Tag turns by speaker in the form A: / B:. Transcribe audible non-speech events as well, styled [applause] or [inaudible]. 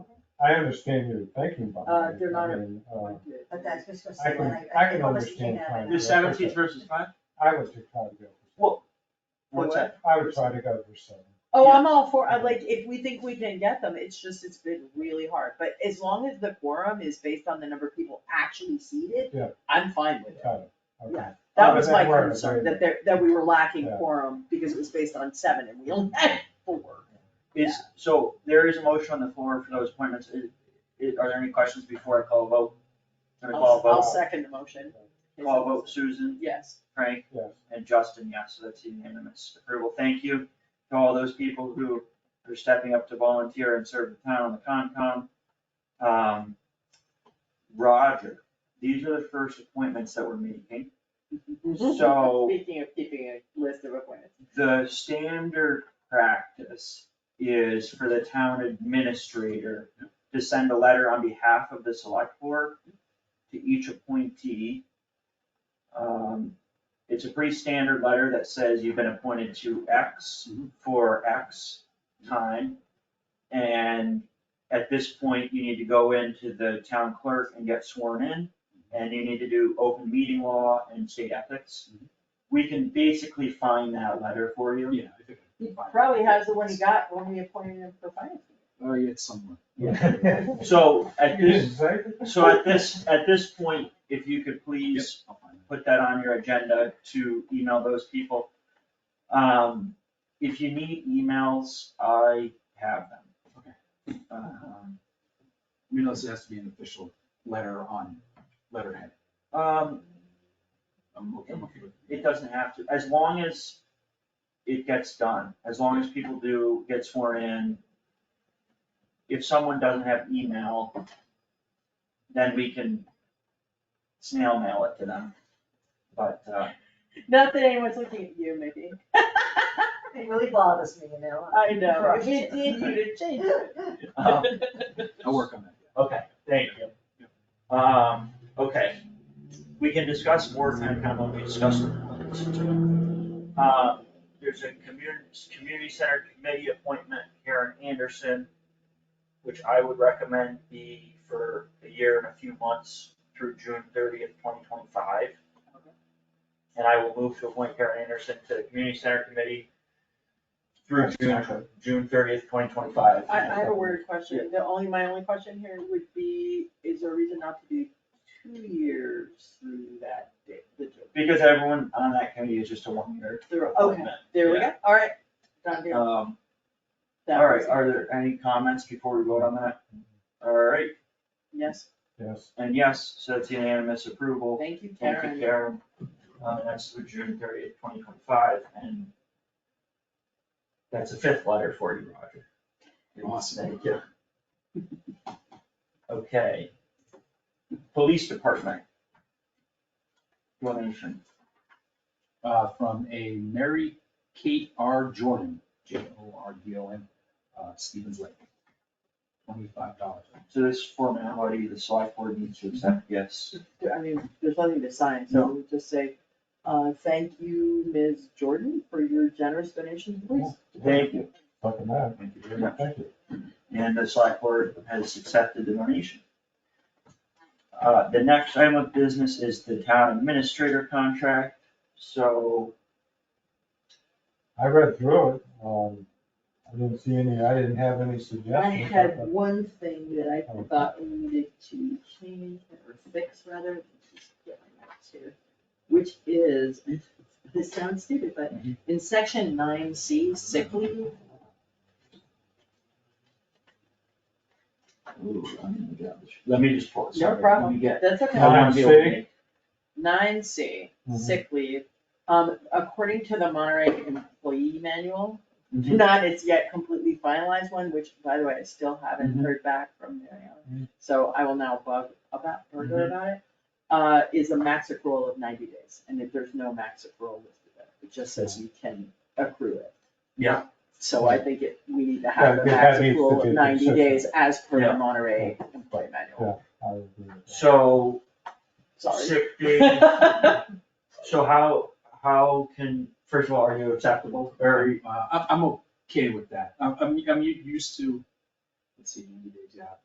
A: I understand your thinking behind
B: Uh,
A: it.
B: they're not
A: I mean, uh,
C: But that's just for.
A: I can, I can understand trying to.
D: There's seventeen versus five?
A: I would just try to go. for
D: Well, What's that?
A: seven. I would try to go for seven.
B: Oh, I'm all for, I like, if we think we can get them, it's just, it's been really hard, but as long as the quorum is based on the number of people actually seated,
A: Yeah.
B: I'm fine with it.
A: Got it, okay.
B: Yeah. That
A: Oh,
B: was
A: that
B: my
A: works,
B: concern,
A: right.
B: that there, that we were lacking
A: Yeah.
B: quorum because it was based on seven and we only [laughs] had four.
D: Is, so there is a motion on the floor for those appointments. Is, is- are there any questions before I call a vote? Gonna call a
B: I'll, I'll
D: vote,
B: second the motion.
D: call a vote, Susan,
B: Yes.
D: Frank,
A: Yes.
D: and Justin, yes, so that's unanimous approval. Thank you to all those people who are stepping up to volunteer and serve the town on the Concom. Um, Roger, these are the first appointments that we're making. So-
B: [laughs] Speaking of keeping a list of appointments.
D: The standard practice is for the town administrator to send a letter on behalf of the select board to each appointee. Um, it's a pretty standard letter that says you've been appointed to X for X time. And at this point, you need to go into the town clerk and get sworn in, and you need to do open meeting law and state ethics. We can basically find that letter for you.
E: Yeah, I think. I
B: He
E: can find
B: probably
E: it.
B: has the one he got when we appointed him for finance.
E: Oh, yeah,
A: [laughs]
E: it's somewhere.
D: So at
A: You
D: this,
A: didn't say it?
D: so at this, at this point, if you could please
E: I'll find it.
D: put that on your agenda to email those people. Um, if you need emails, I have them. Um,
E: You know, this has to be an official letter on letterhead.
D: Um,
E: I'm okay, I'm okay with it.
D: it doesn't have to, as long as it gets done, as long as people do get sworn in. If someone doesn't have email, then we can snail mail it to them. But, uh,
B: Not that anyone's looking at you, Mickey.
C: It really bothers me, you know.
B: [laughs] I know, if it did you to change it.
D: um,
E: I'll work on that.
D: Okay, thank you. Um, okay, we can discuss more time kind of when we discuss. the appointments. Uh, there's a community, community center committee appointment, Karen Anderson, which I would recommend be for a year and a few months through June thirtieth, twenty twenty-five. And I will move to appoint Karen Anderson to the community center committee through June, June thirtieth, twenty twenty-five.
B: I, I have a weird question, the only, my only question here would be, is there a reason not to do two years through that date? the June?
D: Because everyone on that committee is just a one-year
B: Through- Okay,
D: appointment.
B: there we go, alright, done deal.
D: Um,
B: That
D: all right,
B: was-
D: are there any comments before we vote on that? All right,
B: Yes,
A: Yes,
D: and yes, so it's unanimous approval.
B: thank you,
D: Thank you,
B: Karen.
D: Karen. Um, and that's through June thirtieth, twenty twenty-five, and that's a fifth letter for you, Roger.
E: Awesome.
D: Thank you. Okay. Police Department. Donation.
E: Uh, from a Mary Kate R. Jordan, J O R D O N, uh, Stevens Lake. Twenty-five dollars.
D: So this formality, the select board needs to accept, yes.
B: I mean, there's nothing to sign, so we'll just say, uh, thank you, Ms. Jordan, for your generous donation to the police.
D: Thank you.
A: fucking that,
E: Thank you very much.
A: thank you.
D: and the select board has accepted the donation. Uh, the next item of business is the town administrator contract, so,
A: I read through it, um, I didn't see any, I didn't have any
B: I
A: suggestions.
B: had one thing that I thought we needed to change or fix rather, let's just get my notes here. Which is, [laughs] this sounds stupid, but in section nine C, sick leave,
D: ooh, I'm gonna get this. let me just pause.
B: No problem.
D: Let me get.
B: that's
D: I
B: okay.
A: Nine
D: wanna be able to
A: C?
D: make-
B: Nine C,
A: Mhm.
B: sick leave, um, according to the Monterey Employee Manual,
D: Mhm.
B: not as yet completely finalized one, which by the way, I still haven't
D: Mhm.
B: heard back from Mariana.
A: Mhm.
B: So I will now bug about, Virgo about it, uh, is a max accrual of ninety days, and if there's no max accrual listed there, it just says you can accrue it.
D: Yeah.
B: So I think it, we need to have
A: Yeah, that
B: a max
A: needs to
B: accrual
A: be
B: of ninety
A: consistent.
B: days as per the
D: Yeah.
B: Monterey Employee
A: Yeah.
B: Manual,
A: I would agree with that.
D: So,
B: sorry.
D: sick
B: [laughs]
D: day, so how, how can, first of all, are you acceptable, or,
E: Uh, I'm, I'm okay with that. I'm, I'm, I'm u- used to, let's see, ninety days, yeah.